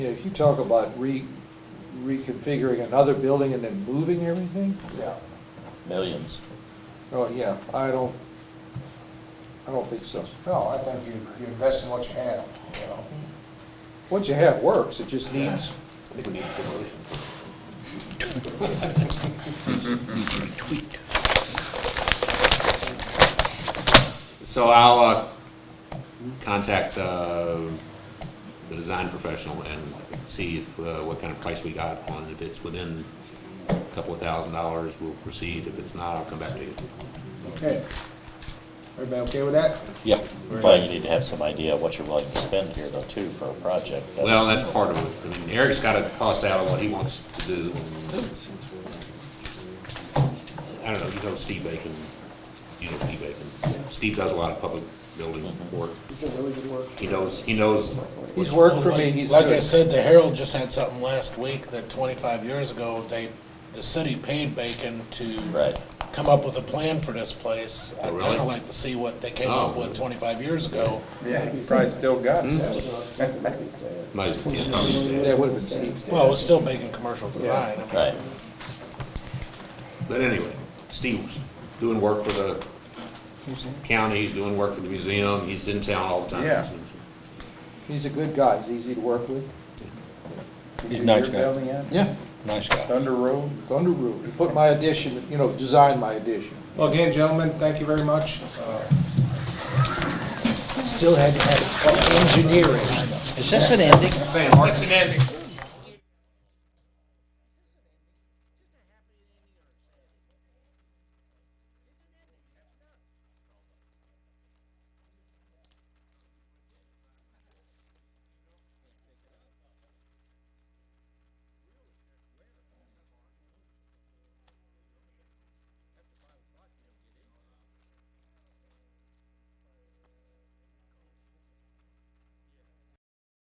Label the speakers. Speaker 1: Yeah, If you talk about re, reconfiguring another building and then moving everything,
Speaker 2: Yeah,
Speaker 3: Millions.
Speaker 1: oh, yeah, I don't, I don't think so.
Speaker 2: no, I think you, you invest in what you have, you know?
Speaker 1: What you have works, it just needs,
Speaker 4: I think we need a promotion.
Speaker 5: So I'll uh, contact uh, the design professional and see if, uh, what kind of price we got on it. If it's within a couple of thousand dollars, we'll proceed. If it's not, I'll come back to you.
Speaker 2: Okay. Everybody okay with that?
Speaker 3: Yeah, probably you need to have some idea of what you're willing to spend here though too for a project.
Speaker 5: Well, that's part of it. I mean, Eric's got to cost out of what he wants to do. I don't know, you know Steve Bacon, you know Steve Bacon. Steve does a lot of public building work.
Speaker 2: He's doing really good work.
Speaker 5: He knows, he knows
Speaker 1: he's worked for me, he's
Speaker 6: Like I
Speaker 1: good.
Speaker 6: said, the Herald just had something last week that twenty-five years ago, they, the city paid Bacon to
Speaker 3: Right.
Speaker 6: come up with a plan for this place. I'd
Speaker 5: Oh, really?
Speaker 6: kinda like to see what they came up
Speaker 5: Oh.
Speaker 6: with twenty-five years ago.
Speaker 1: Yeah, he probably still got
Speaker 4: mm-hmm.
Speaker 1: it.
Speaker 5: most, you know, he's dead.
Speaker 1: That would've been Steve's.
Speaker 6: Well, it was still Bacon Commercial Design. I mean,
Speaker 3: Right.
Speaker 5: But anyway, Steve's doing work for the county, he's doing work for the museum, he's in town all the time.
Speaker 1: Yeah. He's a good guy, he's easy to work with.
Speaker 4: He's a nice guy.
Speaker 1: Yeah.
Speaker 4: Nice guy.
Speaker 1: Thunder Road? Thunder Road, he put my addition, you know, designed my addition.
Speaker 2: Well, again, gentlemen, thank you very much. Uh,
Speaker 4: Is this an ending?
Speaker 5: Stan Martin.